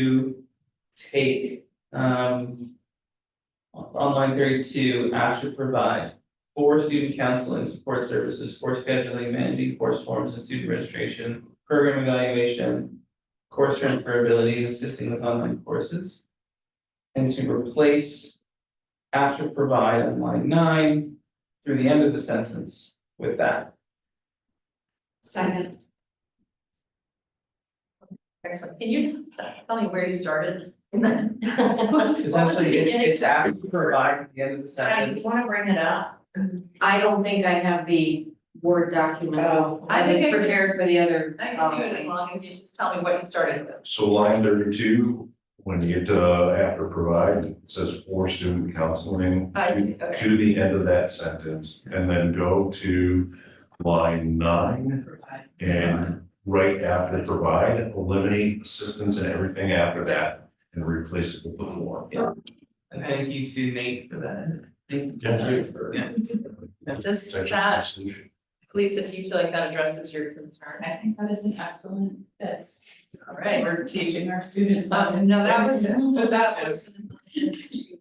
to take um. On line thirty-two, Ash should provide for student counseling, support services, course scheduling, managing course forms and student registration, program evaluation. Course transferability, and assisting with online courses. And to replace after provide on line nine through the end of the sentence with that. Second. Excellent. Can you just tell me where you started in that? It's What was the actually, it's beginning? it's after provide at the end of the I sentence. wanna bring it up. I don't think I have the Word document. Oh. I think I could- Prepared for the other. um, I can do it as long as you just tell me what you started with. So line thirty-two, when you get to after provide, it says for student counseling. I see, to- okay. To the end of that sentence, and then go to line nine, Provide. and right after provide, eliminate assistance and everything after that. And replace it with the form. Yeah. And thank you to Nate for that. Thank you. Yeah. Does It's actually a that, solution. Lisa, do you feel like that addresses your concern? I think that is an excellent fit. All right. We're teaching our students Um, something. No, that was, that was.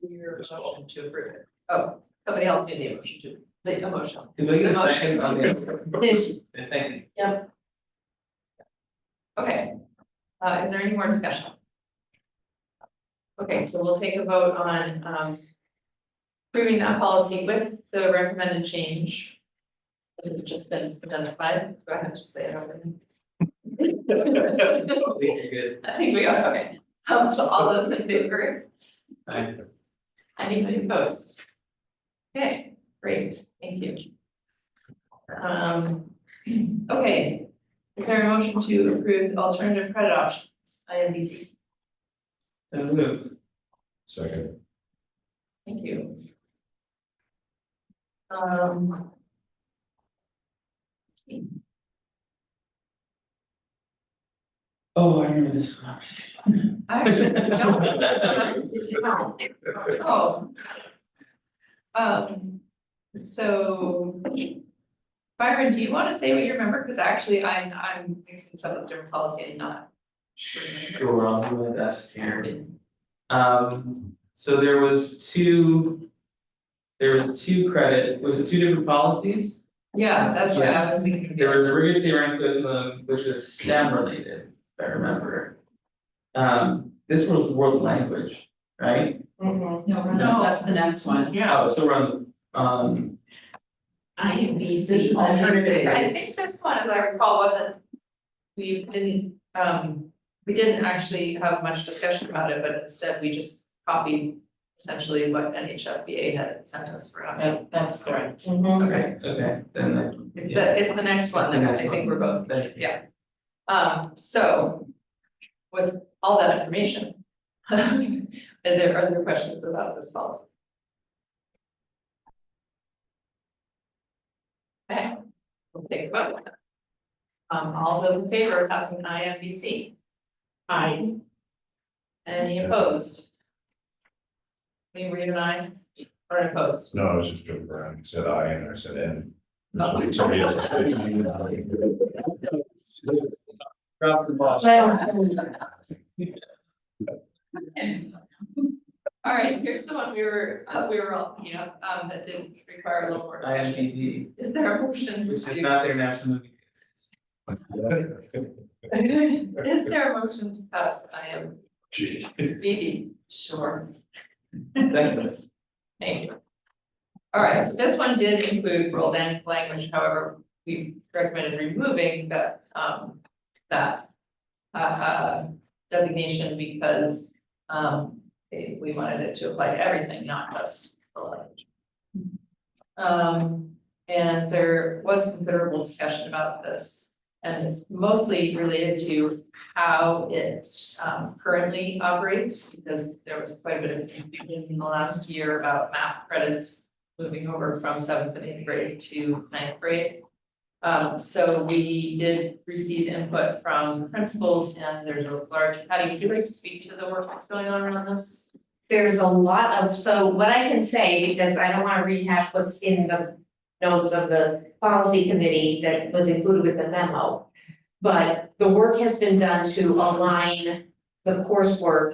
Your motion to approve it. Oh, somebody else made the motion to, the motion. Did we get a The motion. second on the? Thank you. Okay. Uh, is there any more discussion? Okay, so we'll take a vote on, um. Approving that policy with the recommended change. that has just been identified, do I have to say it over? I think you're good. I think we are, okay, Um, so all those in favor, Alright. anybody opposed? Okay, great, thank you. Um, okay, is there a motion to approve alternative credit options, I M B C? So moved. Second, Thank you. Um. Oh, I remember this one. I actually don't, that's what I'm- wow. Oh. Um, so. Byron, do you wanna say what you remember, cause actually I'm I'm mixing some of the different policy and not. Sure, I'll do my best here. Um, so there was two. There was two credit, was it two different policies? Yeah, that's what I was thinking. There was a rigorous theoretical curriculum, um, which was STEM related, if I remember. Um, this was world language, right? Mhm. No, we're No. not. that's the next one. Yeah, oh, so on, um, I am This is alternative. I think this one, as I recall, wasn't, we didn't, um, we didn't actually have much discussion about it, but instead we just copied essentially what NHSBA had sent us for. option. That, that's correct. Okay, okay, then I it's the, it's the next one that I think we're both, Thank you. yeah. Um, so with all that information, are there other questions about this policy? Okay, we'll take a vote. Um, all those in favor of passing I M B C, I, any opposed? Any read an I or an opposed? no, I was just joking around, you said I and I said N. Oh. Somebody else. Drop the ball. um, All right, here's the one we were, uh, we were all, you know, um, that did require a little more I M P discussion. D, Is there a motion which is to, not their national movie. is there a motion to pass I M Gee. B D? Sure, Second, thank you. All right, so this one did include world and language, however, we recommended removing that, um, that uh, uh, designation because, um, it- we wanted it to apply to everything, not just the language. Um, and there was considerable discussion about this and mostly related to how it, um, currently operates because there was quite a bit of confusion in the last year about math credits moving over from seventh and eighth grade to ninth grade. Um, so we did receive input from principals and there's a large, Patty, would you like to speak to the work that's going on around this? There's a lot of, so what I can say, because I don't wanna rehash what's in the notes of the policy committee that was included with the memo. But the work has been done to align the coursework